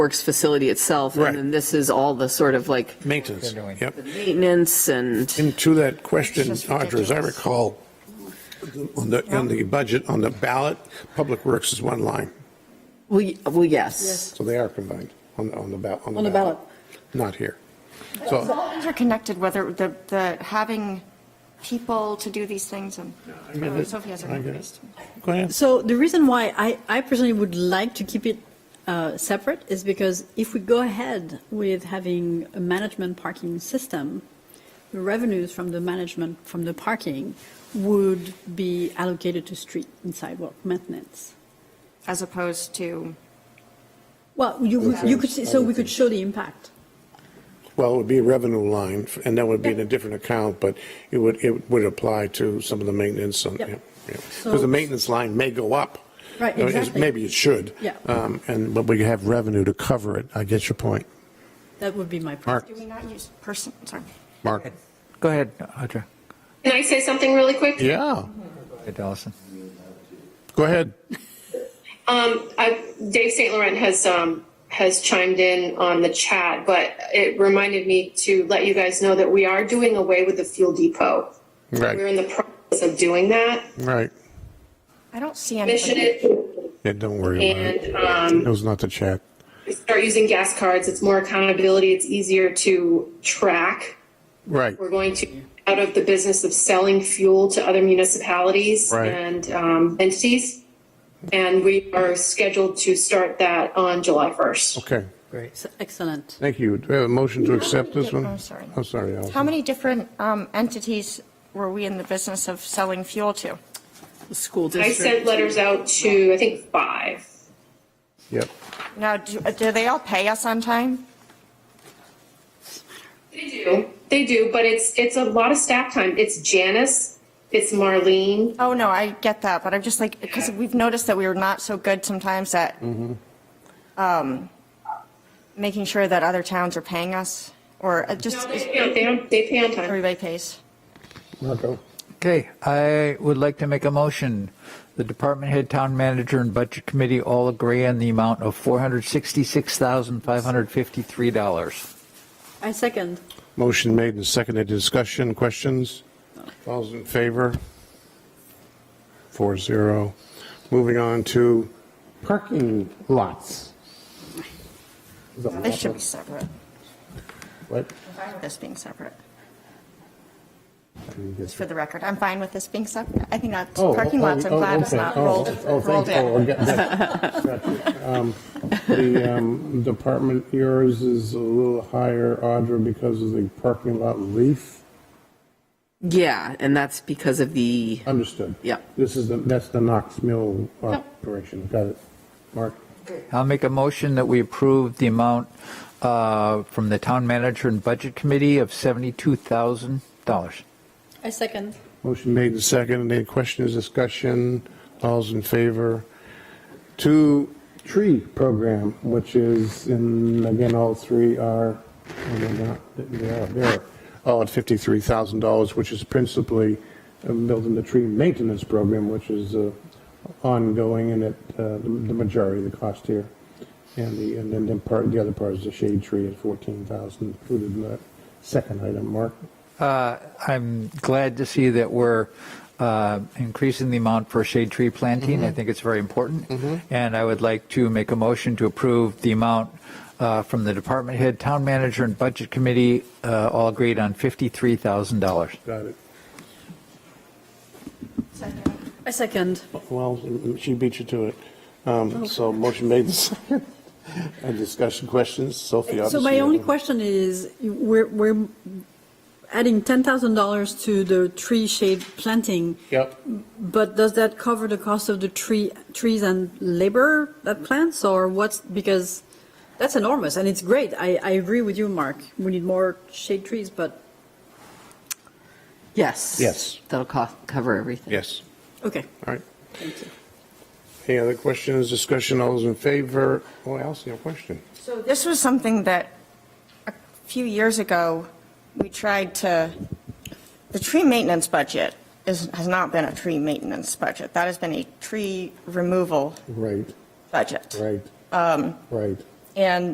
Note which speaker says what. Speaker 1: Works facility itself,
Speaker 2: Right.
Speaker 1: and then this is all the sort of like
Speaker 2: Maintenance,
Speaker 3: They're doing.
Speaker 2: yep.
Speaker 1: maintenance and.
Speaker 2: And to that question,
Speaker 4: It's just
Speaker 2: Audra, as I
Speaker 4: ridiculous.
Speaker 2: recall, on the, on the budget, on the ballot, Public Works is one line,
Speaker 1: Well, y- well, yes.
Speaker 2: so they are combined on, on the ballot.
Speaker 5: On the ballot.
Speaker 2: Not here.
Speaker 4: So
Speaker 2: So,
Speaker 4: all things are connected, whether the, the, having people to do these things and
Speaker 2: I get it.
Speaker 4: Sophie has her
Speaker 2: I
Speaker 4: hand
Speaker 2: get it.
Speaker 4: raised.
Speaker 2: go ahead.
Speaker 5: So the reason why I, I personally would like to keep it uh, separate is because if we go ahead with having a management parking system, the revenues from the management, from the parking, would be allocated to street and sidewalk maintenance.
Speaker 4: as opposed to,
Speaker 5: Well, you, you could, see- so we could show the impact.
Speaker 2: Well, it would be a revenue line, and that would be in a different account, but it would, it would apply to some of the maintenance on,
Speaker 5: Yep. So-
Speaker 2: because the maintenance line may go up.
Speaker 5: Right,
Speaker 2: Uh, it's-
Speaker 5: exactly.
Speaker 2: Maybe it should.
Speaker 5: Yeah.
Speaker 2: Um, And, but we have revenue to cover it. I get your point.
Speaker 5: That would be my. point.
Speaker 2: Mark,
Speaker 4: do we not use person, sorry.
Speaker 2: Mark.
Speaker 3: Go ahead, Audra.
Speaker 6: Can I say something really quick?
Speaker 2: Yeah,
Speaker 3: Go ahead, Allison.
Speaker 2: go ahead.
Speaker 6: Um, I, Dave St. Laurent has, um, has chimed in on the chat, but it reminded me to let you guys know that we are doing away with the fuel depot. We're in
Speaker 2: Right,
Speaker 6: the process of doing that.
Speaker 2: right.
Speaker 4: I don't see
Speaker 6: Mission
Speaker 4: anybody.
Speaker 6: it
Speaker 2: Yeah, don't worry about it.
Speaker 6: and, um,
Speaker 2: It was not the chat.
Speaker 6: start using gas cards. It's more accountability. It's easier to track.
Speaker 2: Right,
Speaker 6: We're going to out of the business of selling fuel to other municipalities
Speaker 2: Right.
Speaker 6: and, um, entities. And we are scheduled to start that on July 1st.
Speaker 2: okay.
Speaker 5: Ex- Excellent.
Speaker 2: Thank you. Do we have a motion to accept this one?
Speaker 4: Oh, sorry.
Speaker 2: I'm sorry, Allison.
Speaker 4: How many different um, entities were we in the business of selling fuel to?
Speaker 1: The school
Speaker 6: I
Speaker 1: district.
Speaker 6: sent letters out to, I think, five.
Speaker 2: Yep.
Speaker 4: Now, do, do they all pay us on time?
Speaker 6: They do, they do, but it's, it's a lot of staff time. It's Janice, it's Marlene.
Speaker 4: Oh, no, I get that, but I'm just like, because we've noticed that we were not so good sometimes at um, making sure that other towns are paying us, or uh, just,
Speaker 6: No, They pay on- they on- they pay on time.
Speaker 4: everybody pays.
Speaker 2: Marco.
Speaker 3: Okay, I would like to make a motion. The department head, town manager, and budget committee all agree on the amount of $466,553.
Speaker 5: I second.
Speaker 2: Motion made and seconded. Discussion, questions? All's in favor? Four zero. Moving on to parking lots.
Speaker 4: This should be separate.
Speaker 2: What?
Speaker 4: I'm fine with this being separate. Just for the record, I'm fine with this being separate. I think that's,
Speaker 2: Oh,
Speaker 4: parking
Speaker 2: oh,
Speaker 4: lots, I'm
Speaker 2: oh,
Speaker 4: glad it's
Speaker 2: okay.
Speaker 4: not
Speaker 2: Oh,
Speaker 4: rolled,
Speaker 2: oh,
Speaker 4: rolled
Speaker 2: thank- oh, I
Speaker 4: in.
Speaker 2: get that. Gotcha. Um, The um, department, yours is a little higher, Audra, because of the parking lot relief.
Speaker 1: Yeah, and that's because of the,
Speaker 2: Understood.
Speaker 1: Yeah.
Speaker 2: This is, the that's the Knox Mill operation. Got it. Mark?
Speaker 3: I'll make a motion that we approve the amount uh, from the town manager and budget committee of $72,000.
Speaker 5: I second.
Speaker 2: Motion made and seconded. Any questions, discussion? All's in favor? Two tree program, which is, and again, all three are, oh, they're not, they are, they are all at $53,000, which is principally uh, built in the tree maintenance program, which is uh, ongoing and at uh, the the majority of the cost here. And the, and then the part, the other part is the shade tree at 14,000 included in that second item, Mark.
Speaker 3: Uh, I'm glad to see that we're uh, increasing the amount for shade tree planting. I think it's very important. And I would like to make a motion to approve the amount uh, from the department head, town manager, and budget committee, uh, all agreed on $53,000.
Speaker 2: Got it.
Speaker 5: I second.
Speaker 2: Well, she beat you to it. Um, So motion made and seconded. And discussion questions, Sophie,
Speaker 5: So
Speaker 2: obviously.
Speaker 5: my only question is, we're, we're adding $10,000 to the tree shade planting,
Speaker 2: Yep.
Speaker 5: but does that cover the cost of the tree, trees and labor that plants, or what's, because that's enormous, and it's great. I, I agree with you, Mark. We need more shade trees, but,
Speaker 1: yes.
Speaker 2: Yes.
Speaker 1: That'll co- cover everything.
Speaker 2: Yes,
Speaker 5: okay,
Speaker 2: all right.
Speaker 5: thank you.
Speaker 2: Any other questions, discussion, all those in favor? Oh, Allison, you have a question.
Speaker 4: So this was something that a few years ago, we tried to, the tree maintenance budget is, has not been a tree maintenance budget. That has been a tree removal
Speaker 2: Right,
Speaker 4: budget.
Speaker 2: right, right.
Speaker 4: And